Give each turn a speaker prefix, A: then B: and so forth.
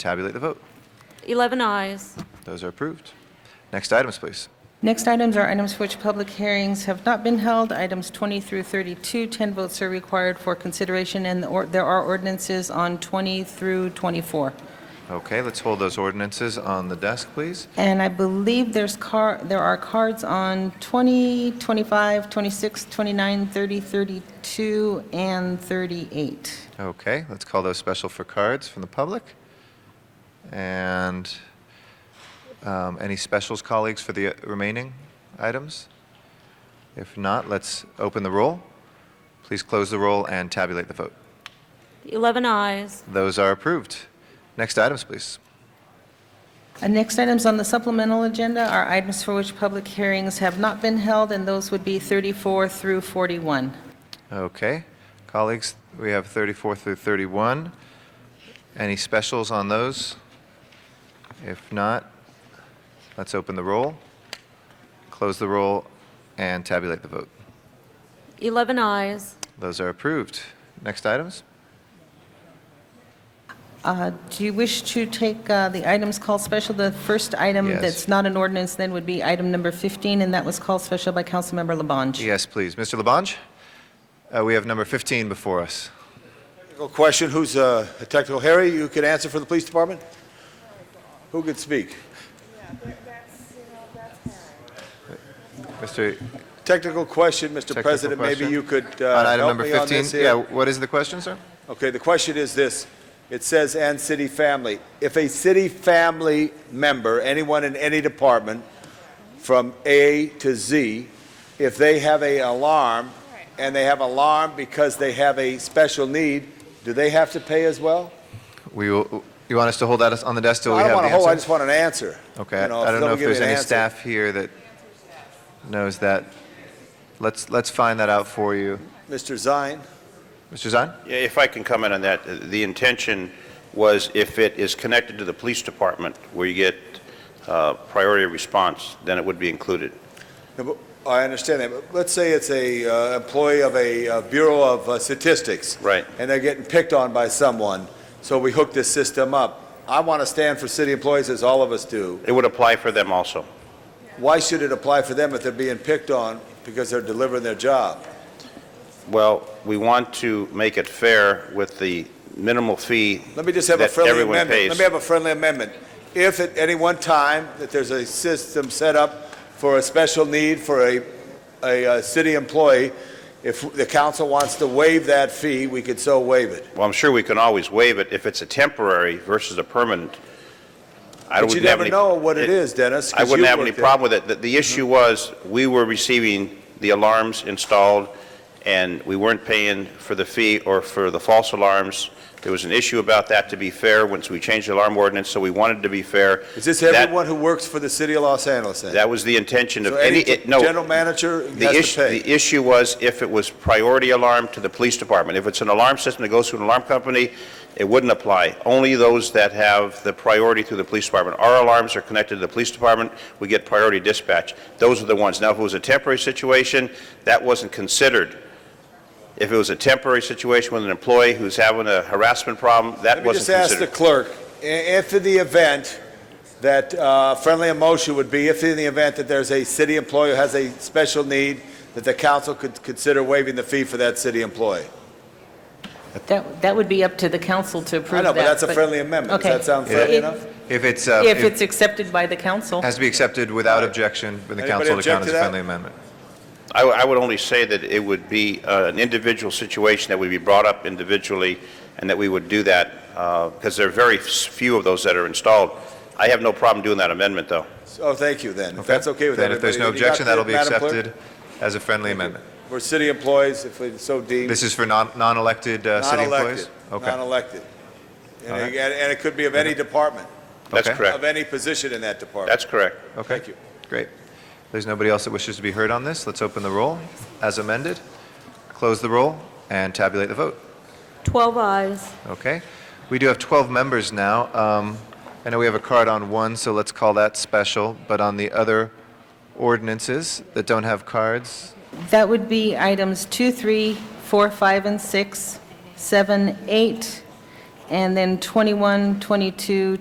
A: Tabulate the vote.
B: 11 eyes.
A: Those are approved. Next items, please.
C: Next items are items for which public hearings have not been held, items 20 through 32. 10 votes are required for consideration, and the or- there are ordinances on 20 through 24.
A: Okay, let's hold those ordinances on the desk, please.
C: And I believe there's car, there are cards on 20, 25, 26, 29, 30, 32, and 38.
A: Okay, let's call those special for cards from the public. And um, any specials, colleagues, for the uh, remaining items? If not, let's open the roll. Please close the roll and tabulate the vote.
B: 11 eyes.
A: Those are approved. Next items, please.
C: Uh, Next items on the supplemental agenda are items for which public hearings have not been held, and those would be 34 through 41.
A: Okay, colleagues, we have 34 through 31. Any specials on those? If not, let's open the roll, close the roll, and tabulate the vote.
B: 11 eyes.
A: Those are approved. Next items?
C: Uh, Do you wish to take uh, the items called special? The first item
A: Yes.
C: that's not an ordinance then would be item number 15, and that was called special by Councilmember Labange.
A: Yes, please. Mr. Labange, Uh, we have number 15 before us.
D: Technical question, who's uh, a technical? Harry, you could answer for the police department? Who could speak?
A: Mr.
D: Technical question, Mr.
A: Technical
D: President, maybe
A: question?
D: you could
A: on
D: uh,
A: item
D: help
A: number
D: me on
A: 15?
D: this
A: Yeah,
D: here.
A: what is the question, sir?
D: Okay, the question is this. It says, "and city family." If a city family member, anyone in any department, from A to Z, if they have a alarm, and they have alarm because they have a special need, do they have to pay as well?
A: We will, you want us to hold that on the desk till we
D: I
A: have
D: don't
A: the
D: want
A: answer?
D: a whole, I just want an answer.
A: Okay,
D: You
A: I
D: if
A: I don't know
D: someone
A: if
D: give me
A: there's
D: an
A: any
D: answer.
A: staff here that knows that. Let's, let's find that out for you.
D: Mr. Zine?
A: Mr. Zahn?
E: Yeah, If I can comment on that, uh, the intention was if it is connected to the police department where you get uh, priority response, then it would be included.
D: No, but I understand that, but let's say it's a uh, employee of a uh, Bureau of uh, Statistics.
E: Right.
D: And they're getting picked on by someone, so we hook this system up. I want to stand for city employees, as all of us do.
E: It would apply for them also.
D: Why should it apply for them if they're being picked on because they're delivering their job?
E: Well, we want to make it fair with the minimal fee
D: Let me just have a
E: that
D: friendly
E: everyone
D: amendment.
E: pays.
D: Let me have a friendly amendment. If at any one time that there's a system set up for a special need for a, a uh, city employee, if the council wants to waive that fee, we could so waive it.
E: Well, I'm sure we can always waive it if it's a temporary versus a permanent.
D: But
E: I
D: you
E: wouldn't have
D: never
E: any- eh,
D: know what it is, Dennis.
E: I
D: 'cause
E: wouldn't
D: you
E: have any
D: worked Mm-hmm. there.
E: problem with it. The- The issue was, we were receiving the alarms installed, and we weren't paying for the fee or for the false alarms. There was an issue about that, to be fair, once we changed the alarm ordinance, so we wanted to be fair.
D: Is this
E: That-
D: everyone who works for the city of Los Angeles then?
E: That was the intention of
D: So
E: any,
D: any
E: it- no.
D: general manager
E: The
D: has
E: issue-
D: to pay?
E: The issue was if it was priority alarm to the police department. If it's an alarm system that goes through an alarm company, it wouldn't apply. Only those that have the priority through the police department. Our alarms are connected to the police department, we get priority dispatch. Those are the ones. Now, if it was a temporary situation, that wasn't considered. If it was a temporary situation with an employee who's having a harassment problem, that
D: Let me
E: wasn't
D: just ask the
E: considered.
D: clerk, i- if in the event that, uh, friendly motion would be, if in the event that there's a city employee who has a special need, that the council could consider waiving the fee for that city employee.
C: That, that would be up to the council to approve
D: I
C: that.
D: know, but that's a friendly amendment.
C: Okay.
D: Does that sound
C: So
D: friendly
C: if-
D: enough?
A: If it's, uh,
C: If it's
A: it
C: accepted by the council.
A: has to be accepted without objection with the
D: Anybody
A: council to count
D: object
A: as
D: to
A: a
D: that?
A: friendly amendment.
E: I I would only say that it would be uh, an individual situation that would be brought up individually, and that we would do that, because there are very s- few of those that are installed. I have no problem doing that amendment, though.
D: Oh, thank you then. If that's okay with
A: Then
D: everybody.
A: if there's no
D: then you got
A: objection,
D: the-
A: that'll be
D: Madam Clerk,
A: accepted as a friendly amendment.
D: For city employees, if we so deem.
A: This is for non- non-elected uh, city employees?
D: Non-elected, non-elected. And
A: All right.
D: it- and it could be of any department,
E: That's
A: Okay.
E: correct.
D: of any position in that department.
E: That's correct.
A: Okay.
D: Thank you.
A: Great. If There's nobody else that wishes to be heard on this. Let's open the roll as amended, close the roll, and tabulate the vote.
B: 12 eyes.
A: Okay. We do have 12 members now. Um, I know we have a card on one, so let's call that special. But on the other ordinances that don't have cards,
C: That would be items 2, 3, 4, 5, and 6, 7, 8, And then 21, 22,